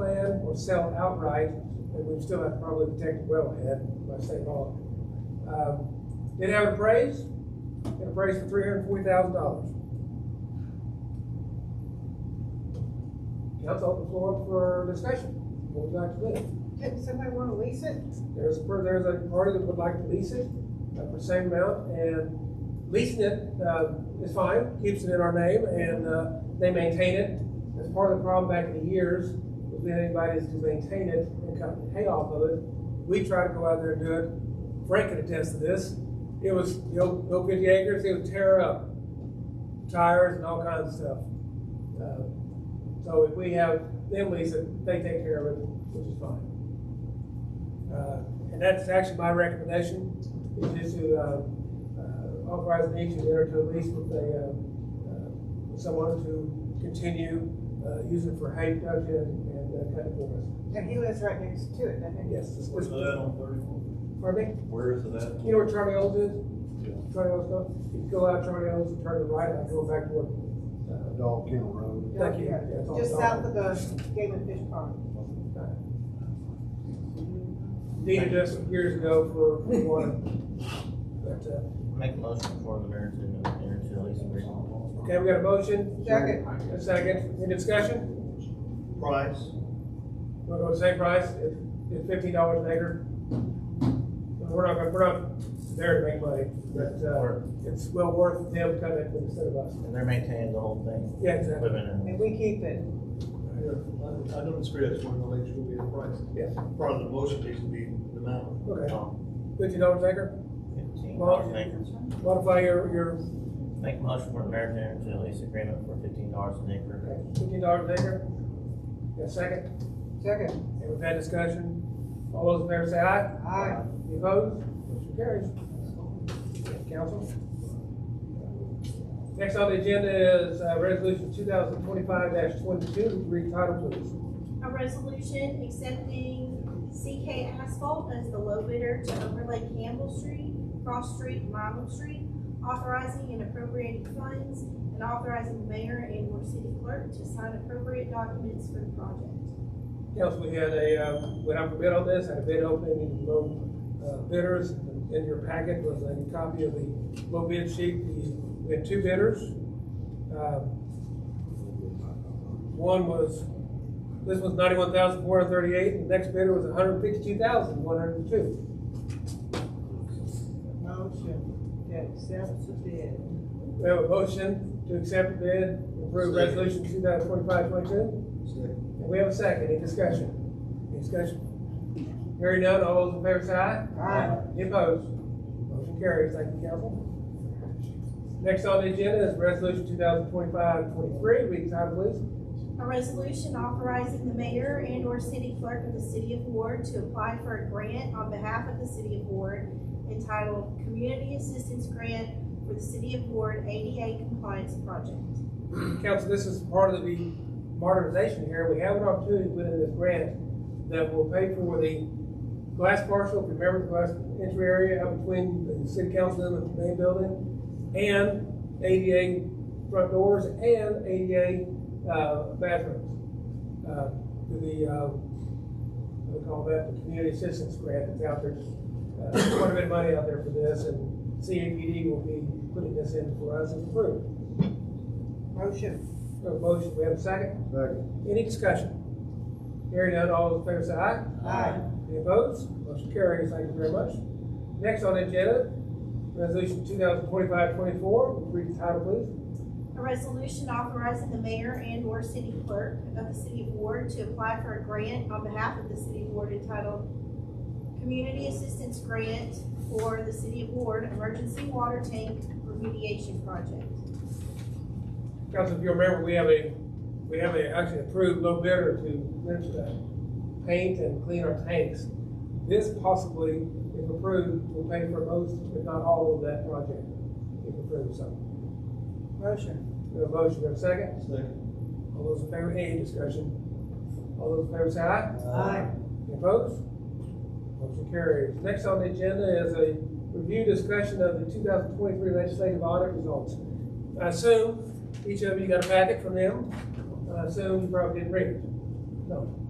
plan or sell outright, and we still have to probably protect the wellhead by state law. Um, Did have it appraised, it appraised for three hundred and forty thousand dollars. Council open floor for discussion, what would you like to do? Did somebody wanna lease it? There's, a per- there's a party that would like to lease it uh, for the same amount, and leasing it uh, is fine, keeps it in our name, and uh, they maintain it. That's part of the problem back in the years, was that anybody that's to maintain it and kind of pay off of it. We try to go out there and do it. Frank can attest to this. It was, you know, no fifty acres, it would tear up tires and all kinds of stuff. Uh, So if we have them lease it, they take care of it, which is fine. Uh, And that's actually my recommendation, is just to uh, uh, authorize the need to enter to a lease with a, uh, uh, with someone to continue uh, using for hay production and uh, cutting for us. And he lives right next to it, doesn't he? Yes, this Where's was, that on thirty-four? pardon me? Where is it at? You know where Charlie O's is? Charlie O's stuff? You go out Charlie O's and turn to the right, and go back to uh, what? Dog Kennel Road. Thank you. Yeah, it's all Just done. south of the Game and Fish Park. Needed us years ago for one. But, uh, Make a motion for the mayor to enter into a lease agreement. Okay, uh, we got a motion, Second, a second, any discussion? Price? We'll go the same price, it's it's fifteen dollars an acre. We're not, gonna- we're not there to make money, but, uh, it's well worth them coming instead of us. And they're maintaining the whole thing. Yeah, exactly. Equipment and we keep it. I I don't disagree, I just want to make sure we have a price. Yes, Part of the motion needs to be the amount. okay, and fifteen dollars an acre, fifteen dollars an acre. modify your, your Make a motion for the mayor to enter into a lease agreement for fifteen dollars an acre. okay, fifteen dollars an acre. Got a second, Second, and we've had discussion, all those in favor say aye. aye. Any opposed? Motion carries. Council? Next on the agenda is, uh, resolution two thousand twenty-five twenty-two, read title please. A resolution accepting CK Asphalt as the low bidder to overlay Campbell Street, Cross Street, Milam Street, authorizing and appropriating funds, and authorizing the mayor and or city clerk to sign appropriate documents for the project. Council, we had a, uh, went out for bid on this, had a bid opening, and low uh, bidders. In your packet was a copy of the low bid sheet. The- We had two bidders. Uh, One was, this was ninety-one thousand four hundred thirty-eight, and the next bidder was 152,102. hundred fifty-two thousand one hundred two. Motion to accept the bid. We have a motion to accept the bid, approve Second. resolution 2025-22. And we have a second, any discussion? Any discussion? Hearing none, all those in favor say aye. Aye. Any opposed? Motion carries, thank you, council. Next on the agenda is resolution 2025-23. read the title please. A resolution authorizing the mayor and or city clerk of the city of Ward to apply for a grant on behalf of the city of Ward entitled Community Assistance Grant for the City of Ward ADA Compliance Project. Council, this is part of the modernization here. We have an opportunity within this grant that will pay for the glass parcel, if you remember the glass entry area out between the city council and the main building, and ADA front doors and ADA uh, bathrooms. uh, To the, uh, what do we call that, the community assistance grant that's out there. Uh, Quite a bit of money out there for this, and CAPD will be putting this in for us and approved. Motion, We have a motion, we have a second. Second. Any discussion? Hearing none, all those in favor say aye. aye. Any opposed? Motion carries, thank you very much. Next on the agenda, resolution 2025-24. read the title, please. A resolution authorizing the mayor and/or city clerk of the city of Ward to apply for a grant on behalf of the city of Ward entitled Community Assistance Grant for the City of Ward Emergency Water Tank Remediation Project. Council, if you remember, we have a, we have a actually approved low bidder to uh, paint and clean our tanks. This possibly, if approved, will pay for most, if not all of that project, if approved, so. Motion, We have a motion, we have a second. Second. All those in favor, any discussion? All those in favor say aye. aye. Any Opposed? Motion carries. Next on the agenda is a review discussion of the two thousand twenty-three legislative audit results. I assume each of you got a packet from them. I assume you probably didn't read it. No.